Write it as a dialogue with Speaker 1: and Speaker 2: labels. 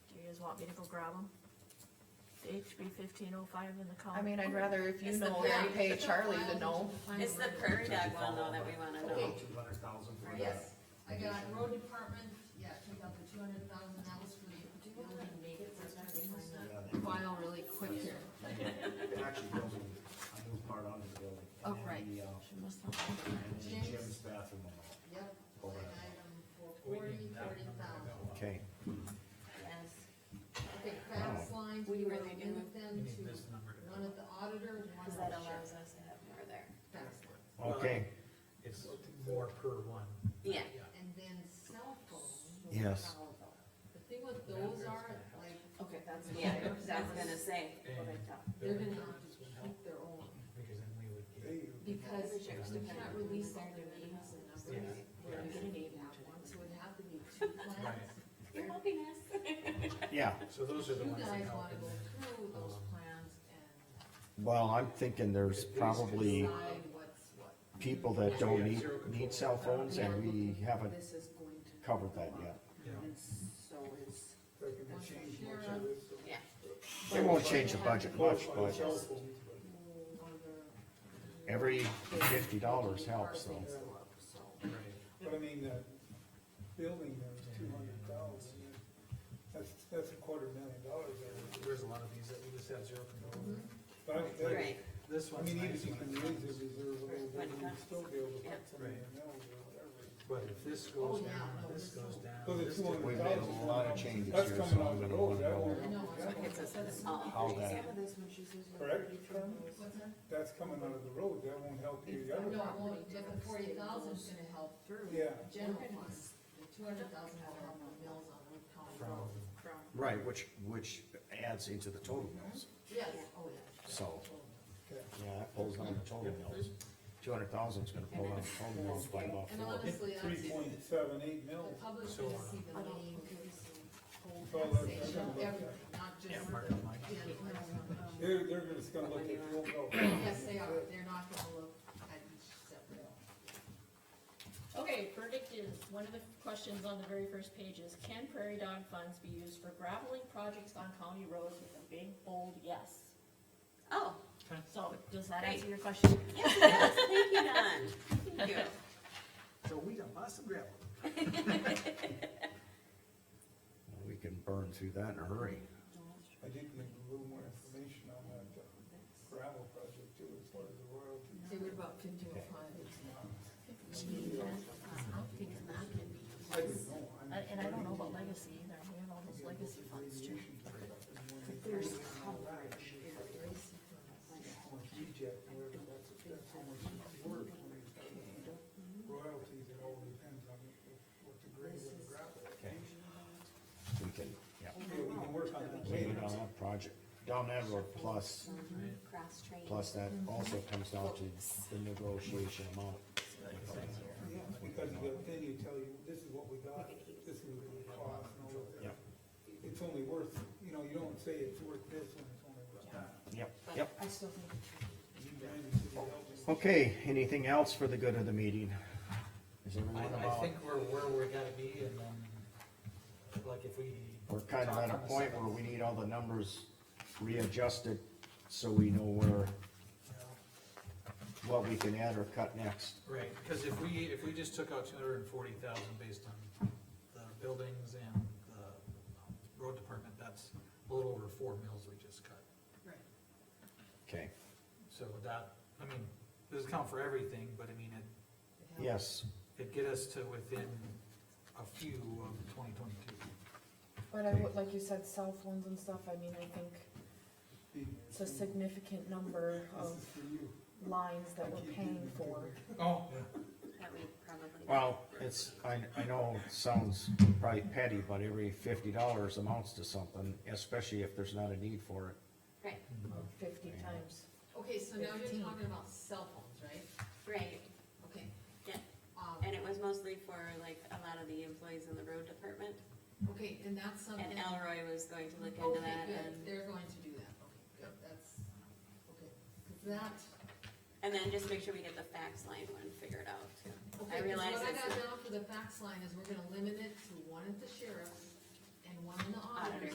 Speaker 1: want me to go grab them? The HB fifteen oh five in the column?
Speaker 2: I mean, I'd rather if you
Speaker 3: Um, It's the
Speaker 2: know, you
Speaker 3: plan.
Speaker 2: pay Charlie to know.
Speaker 3: It's the prairie dog one though that we wanna know.
Speaker 4: Two hundred thousand for the.
Speaker 5: Yes, I got road department, yeah, take out the two hundred thousand, that was for the building maintenance, I think was
Speaker 4: Yeah,
Speaker 5: the
Speaker 4: they-
Speaker 5: file really quick here.
Speaker 4: They're actually building a new part onto the building. and
Speaker 5: Oh,
Speaker 4: then
Speaker 5: right.
Speaker 4: the, uh,
Speaker 1: She must have.
Speaker 4: And then
Speaker 5: James.
Speaker 4: Jim's bathroom and all.
Speaker 5: Yep,
Speaker 4: Over.
Speaker 5: line item for forty, thirty thousand.
Speaker 6: Okay,
Speaker 5: Yes. Okay, fax lines, we will move them to one at the auditor and one
Speaker 3: Cause
Speaker 5: at
Speaker 3: that
Speaker 5: the sheriff.
Speaker 3: allows us to have more there.
Speaker 5: Fax line.
Speaker 6: okay,
Speaker 7: It's more per one.
Speaker 3: Yeah.
Speaker 5: And then cell phone.
Speaker 6: yes,
Speaker 5: The thing with those are, like,
Speaker 1: Okay, that's.
Speaker 3: Yeah, I was gonna say.
Speaker 5: they're gonna have to keep their own,
Speaker 7: Because then we would get,
Speaker 5: because you cannot release all their names and numbers.
Speaker 7: Yeah.
Speaker 5: We're gonna need that one, so it'd have to be two plans.
Speaker 3: You're helping us.
Speaker 6: yeah.
Speaker 7: so those are
Speaker 5: You
Speaker 7: the ones that
Speaker 5: guys
Speaker 7: help.
Speaker 5: wanna
Speaker 7: and
Speaker 5: go
Speaker 7: then-
Speaker 5: through those
Speaker 7: um,
Speaker 5: plans and
Speaker 6: Well, I'm thinking there's probably
Speaker 5: decide what's what.
Speaker 6: people that don't need, need cell phones and we haven't
Speaker 8: This is going to.
Speaker 6: covered that yet.
Speaker 7: Yeah.
Speaker 8: And so is.
Speaker 5: Once the sheriff,
Speaker 3: Yeah.
Speaker 6: It won't change the budget much, but
Speaker 5: or
Speaker 6: every fifty dollars helps, so.
Speaker 5: things go up, so.
Speaker 9: But I mean, the building there was two hundred thousand, that's, that's a quarter million dollars there.
Speaker 7: There's a lot of these that we just have zero control over.
Speaker 5: Mm-hmm.
Speaker 9: But I- that-
Speaker 3: Right.
Speaker 7: This
Speaker 9: I
Speaker 7: one's
Speaker 9: mean, even
Speaker 7: nice,
Speaker 9: if you can
Speaker 7: when it
Speaker 9: use
Speaker 7: comes,
Speaker 9: the reserve a little bit, you would still be able to
Speaker 3: Yeah.
Speaker 9: put some in the mills or whatever.
Speaker 7: but if this
Speaker 5: Oh,
Speaker 7: goes
Speaker 5: yeah,
Speaker 7: down,
Speaker 5: no,
Speaker 7: this
Speaker 5: this one.
Speaker 7: goes down.
Speaker 9: Well, the
Speaker 7: this
Speaker 9: two
Speaker 7: goes
Speaker 6: We've
Speaker 9: hundred
Speaker 7: down.
Speaker 6: made
Speaker 9: thousand.
Speaker 6: a lot of changes
Speaker 9: That's
Speaker 6: here, so I'm
Speaker 9: coming out of
Speaker 6: gonna
Speaker 9: the road,
Speaker 6: wonder
Speaker 9: that won't-
Speaker 5: I know, I
Speaker 9: that
Speaker 5: think
Speaker 9: won't-
Speaker 5: it's
Speaker 3: Oh,
Speaker 5: a-
Speaker 6: how that,
Speaker 8: Some of this when she says. like
Speaker 9: Correct, Carmen?
Speaker 5: What's that?
Speaker 9: That's coming out of the road, that won't help you the other.
Speaker 5: No, it won't, but the forty thousand's gonna help through.
Speaker 9: Yeah.
Speaker 5: General funds, the two hundred thousand will help the mills on Wood County Road.
Speaker 6: right, which, which adds into the total mills,
Speaker 5: Yes, oh, yeah.
Speaker 6: so,
Speaker 9: Okay.
Speaker 6: yeah, that pulls down the total mills. Two hundred thousand's gonna pull down the total mills by about
Speaker 5: And
Speaker 6: four.
Speaker 5: honestly, that's,
Speaker 9: Three
Speaker 5: the
Speaker 9: point seven eight mills.
Speaker 5: public's
Speaker 7: So,
Speaker 5: gonna
Speaker 7: uh,
Speaker 5: see the
Speaker 8: I don't
Speaker 5: name,
Speaker 8: think it's-
Speaker 5: compensation, everything, not just.
Speaker 7: Yeah,
Speaker 5: the
Speaker 7: mark up like-
Speaker 5: general funds.
Speaker 9: They're, they're just gonna look at your bill.
Speaker 5: Yes, they are, they're not gonna look at each separate.
Speaker 10: Okay, verdict is, one of the questions on the very first page is, can prairie dog funds be used for graveling projects on county roads with a big bold yes?
Speaker 3: Oh,
Speaker 10: So, does that answer
Speaker 3: Great.
Speaker 10: your question?
Speaker 3: yes, yes, thank you, Don. Thank you.
Speaker 7: So we got lots of gravel.
Speaker 6: We can burn through that in a hurry.
Speaker 9: I did need a little more information on that uh, gravel project too, as far as the royalties.
Speaker 5: Say, what about continual funds?
Speaker 1: I'm thinking that can be.
Speaker 9: I didn't know, I mean,
Speaker 1: I- And I don't know about legacy either, we have all those legacy funds too.
Speaker 8: There's coverage.
Speaker 9: how much reject, whatever, that's, that's how much it's worth when you start looking at royalties, it all depends on what the grade of the gravel. is.
Speaker 6: Okay. We can, yeah,
Speaker 9: Okay, we can work on that
Speaker 6: lay it
Speaker 9: later.
Speaker 6: on that project, down that road, plus,
Speaker 3: Cross train.
Speaker 6: plus that also comes down to the negotiation amount.
Speaker 9: Yeah, because the thing you tell you, this is what we got, this is what it cost and all of that. It's only worth, you know, you don't say it's worth this when it's only worth that.
Speaker 6: Yep, yep.
Speaker 8: I still think.
Speaker 9: You guys should be helping.
Speaker 6: Okay, anything else for the good of the meeting? Is
Speaker 7: I,
Speaker 6: everyone
Speaker 7: I
Speaker 6: about,
Speaker 7: think we're where we gotta be and then, like if we.
Speaker 6: we're kind of
Speaker 7: talk
Speaker 6: at a
Speaker 7: on the
Speaker 6: point
Speaker 7: seventh,
Speaker 6: where we need all the numbers readjusted, so we know where,
Speaker 7: you know,
Speaker 6: what we can add or cut next.
Speaker 7: Right, because if we, if we just took out two hundred and forty thousand based on the buildings and the um, road department, that's a little over four mills we just cut.
Speaker 5: Right.
Speaker 6: Okay,
Speaker 7: So that, I mean, doesn't count for everything, but I mean, it,
Speaker 6: yes,
Speaker 7: it'd get us to within a few of twenty twenty-two.
Speaker 8: But I would, like you said, cell phones and stuff, I mean, I think it's a significant number
Speaker 9: This
Speaker 8: of
Speaker 9: is for you.
Speaker 8: lines that we're paying for.
Speaker 7: Oh.
Speaker 3: That we probably.
Speaker 6: well, it's, uh, I, I know it sounds probably petty, but every fifty dollars amounts to something, especially if there's not a need for it.
Speaker 3: Right,
Speaker 8: fifty times.
Speaker 5: Okay, so now you're
Speaker 8: Fifteen.
Speaker 5: talking about cell phones, right?
Speaker 3: right.
Speaker 5: Okay.
Speaker 3: Yeah.
Speaker 5: Um,
Speaker 3: And it was mostly for like a lot of the employees in the road department.
Speaker 5: okay, and that's something.
Speaker 3: And Elroy was going to look into
Speaker 5: Okay,
Speaker 3: that
Speaker 5: good,
Speaker 3: and,
Speaker 5: they're going to do that, okay, good, that's, okay, 'Cause that.
Speaker 3: and then just make sure we get the fax line one figured out too.
Speaker 5: okay,
Speaker 3: I
Speaker 5: 'cause
Speaker 3: realize
Speaker 5: What I
Speaker 3: it's-
Speaker 5: got down for the fax line is we're gonna limit it to one at the sheriff's and one in the
Speaker 3: Auditor's
Speaker 5: auditor's